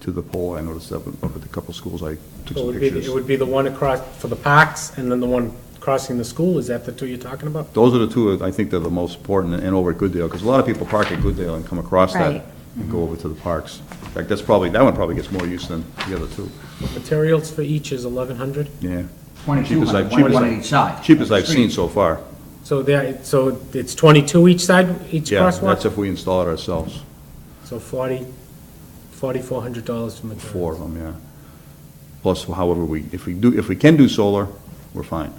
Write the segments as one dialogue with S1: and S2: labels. S1: to the pole. I noticed that up at a couple schools. I took
S2: So it
S1: some
S2: would be,
S1: pictures.
S2: it would be the one across, for the parks, and then the one crossing the school, is that the two you're talking about?
S1: Those are the two, I think, that are the most important, and over at Goodale, because a lot of people park at Goodale and come across
S3: Right.
S1: that and go over to the parks. In fact, that's probably, that one probably gets more use than the other two,
S2: Materials for each is eleven hundred,
S1: yeah.
S4: Twenty-two
S1: Cheapest I've-
S4: hundred, one
S1: cheapest
S4: one
S1: I've-
S4: on each side.
S1: Cheapest I've
S4: Street.
S1: seen so far.
S2: so there, so it's twenty-two each side, each
S1: Yeah, that's
S2: crosswalk?
S1: if we install it ourselves,
S2: So forty, forty-four hundred dollars for materials.
S1: four of them, yeah. Plus however we, if we do, if we can do solar, we're fine.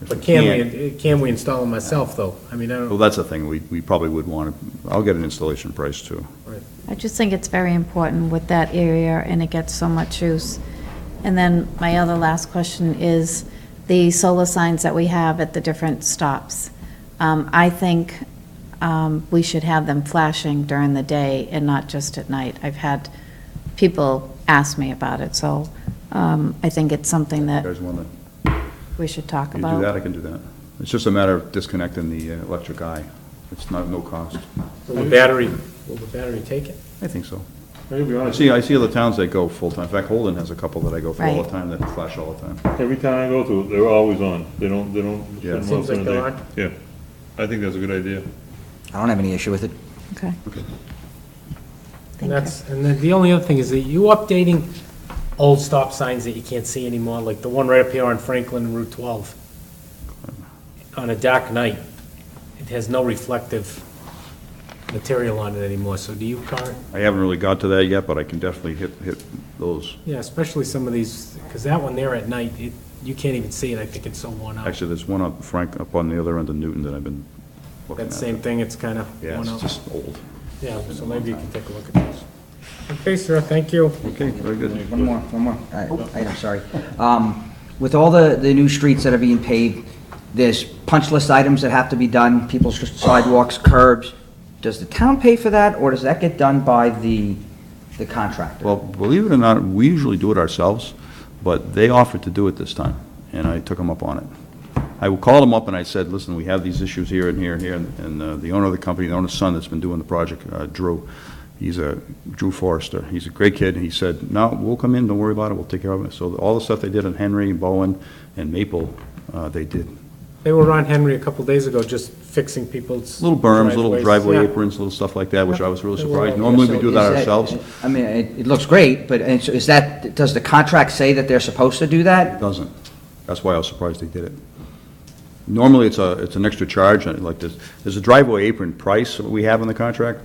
S1: If
S2: But can
S1: can't-
S2: we, can we install them myself, though? I mean, I
S1: Well,
S2: don't,
S1: that's the thing, we, we probably would want to, I'll get an installation price too.
S3: I just think it's very important with that area, and it gets so much use. And then my other last question is the solar signs that we have at the different stops. Um, I think um, we should have them flashing during the day and not just at night. I've had people ask me about it, so um, I think it's something
S1: You
S3: that
S1: guys want to,
S3: we should talk
S1: you do that,
S3: about.
S1: I can do that. It's just a matter of disconnecting the uh, electric eye. It's not, no cost.
S2: will the battery, will the battery take it?
S1: I think so.
S5: I'll be
S1: I
S5: honest,
S1: see, I see other towns that go full-time. In fact, Holden has a couple that I go for all the
S3: Right.
S1: time, that flash all the time.
S5: every time I go to, it, they're always on, they don't, they don't.
S1: Yeah.
S5: spend
S2: Seems
S5: most of
S2: like
S5: the
S2: they're
S5: day.
S2: on.
S5: Yeah, I think that's a good idea.
S4: I don't have any issue with it.
S3: Okay.
S2: And
S3: Thank you.
S2: that's, and then the only other thing is that you updating old stop signs that you can't see anymore, like the one right up here on Franklin and Route 12. On a dark night, it has no reflective material on it anymore, so do you, Karen?
S1: I haven't really got to that yet, but I can definitely hit, hit those.
S2: Yeah, especially some of these, because that one there at night, it, you can't even see it, I think it's so worn out.
S1: Actually, there's one up Frank, up on the other end of Newton that I've been looking at.
S2: That same thing, it's kind of
S1: Yeah,
S2: worn
S1: it's
S2: out.
S1: just old.
S2: Yeah, so maybe you can take a look at those. Okay, sir, thank you.
S1: Okay, very good.
S4: One more, one more i- item, sorry. Um, With all the, the new streets that are being paved, there's punch list items that have to be done, people's sidewalks, curbs. Does the town pay for that, or does that get done by the, the contractor?
S1: Well, believe it or not, we usually do it ourselves, but they offered to do it this time, and I took them up on it. I called them up and I said, listen, we have these issues here and here and here, and uh, the owner of the company, the owner's son that's been doing the project, uh, Drew, he's a, Drew Forrester, he's a great kid, he said, no, we'll come in, don't worry about it, we'll take care of it. So all the stuff they did on Henry, Bowen, and Maple, uh, they did.
S2: They were on Henry a couple days ago, just fixing people's.
S1: Little berms, little driveway
S2: Yeah.
S1: aprons, little stuff like that, which I was really
S2: They were all-
S1: surprised. Normally, we
S4: So
S1: do that
S4: is
S1: ourselves.
S4: I mean, it, it looks great, but and so is that, does the contract say that they're supposed to do that?
S1: Doesn't. That's why I was surprised they did it. Normally, it's a, it's an extra charge, and like this, there's a driveway apron price that we have in the contract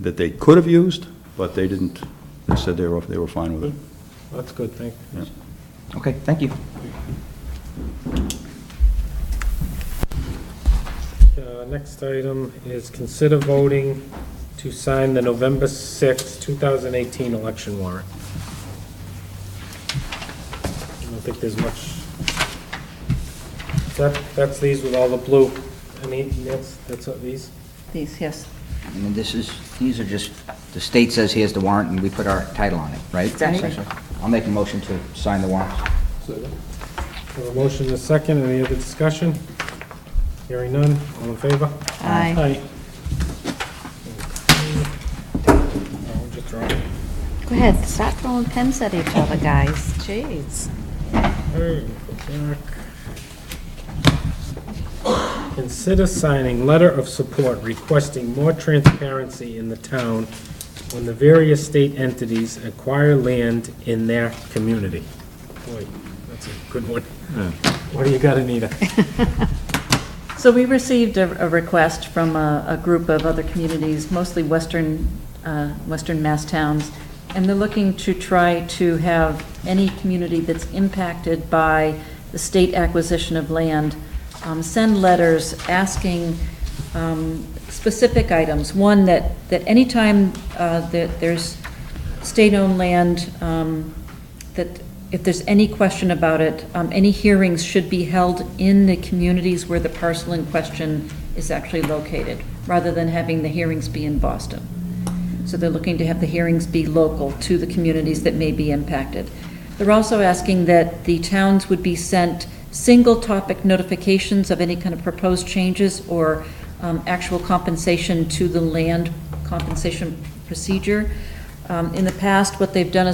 S1: that they could have used, but they didn't. They said they were, they were fine with it.
S2: That's good, thank you.
S4: Okay, thank you.
S2: Uh, Next item is consider voting to sign the November sixth, two 2018 election warrant. I don't think there's much. That, that's these with all the blue. I mean, that's, that's what these.
S3: These, yes.
S4: And then this is, these are just, the state says here's the warrant, and we put our title on it, right?
S3: Exactly.
S4: Essentially. I'll make a motion to sign the warrant.
S2: Have a motion and a second. Any other discussion? Hearing none. All in favor?
S3: Aye.
S2: I'll just draw it.
S3: Go ahead, stop throwing pins at each other, guys. Jeez.
S2: Hey, Jack. Consider signing letter of support requesting more transparency in the town when the various state entities acquire land in their community. Boy, that's a good one. What do you got, Anita?
S6: So we received a, a request from a, a group of other communities, mostly western, uh, western Mass towns, and they're looking to try to have any community that's impacted by the state acquisition of land, um, send letters asking, um, specific items. One, that, that anytime, uh, that there's state-owned land, um, that if there's any question about it, um, any hearings should be held in the communities where the parcel in question is actually located, rather than having the hearings be in Boston. So they're looking to have the hearings be local to the communities that may be impacted. They're also asking that the towns would be sent single-topic notifications of any kind of proposed changes or um, actual compensation to the land compensation procedure. Um, In the past, what they've done is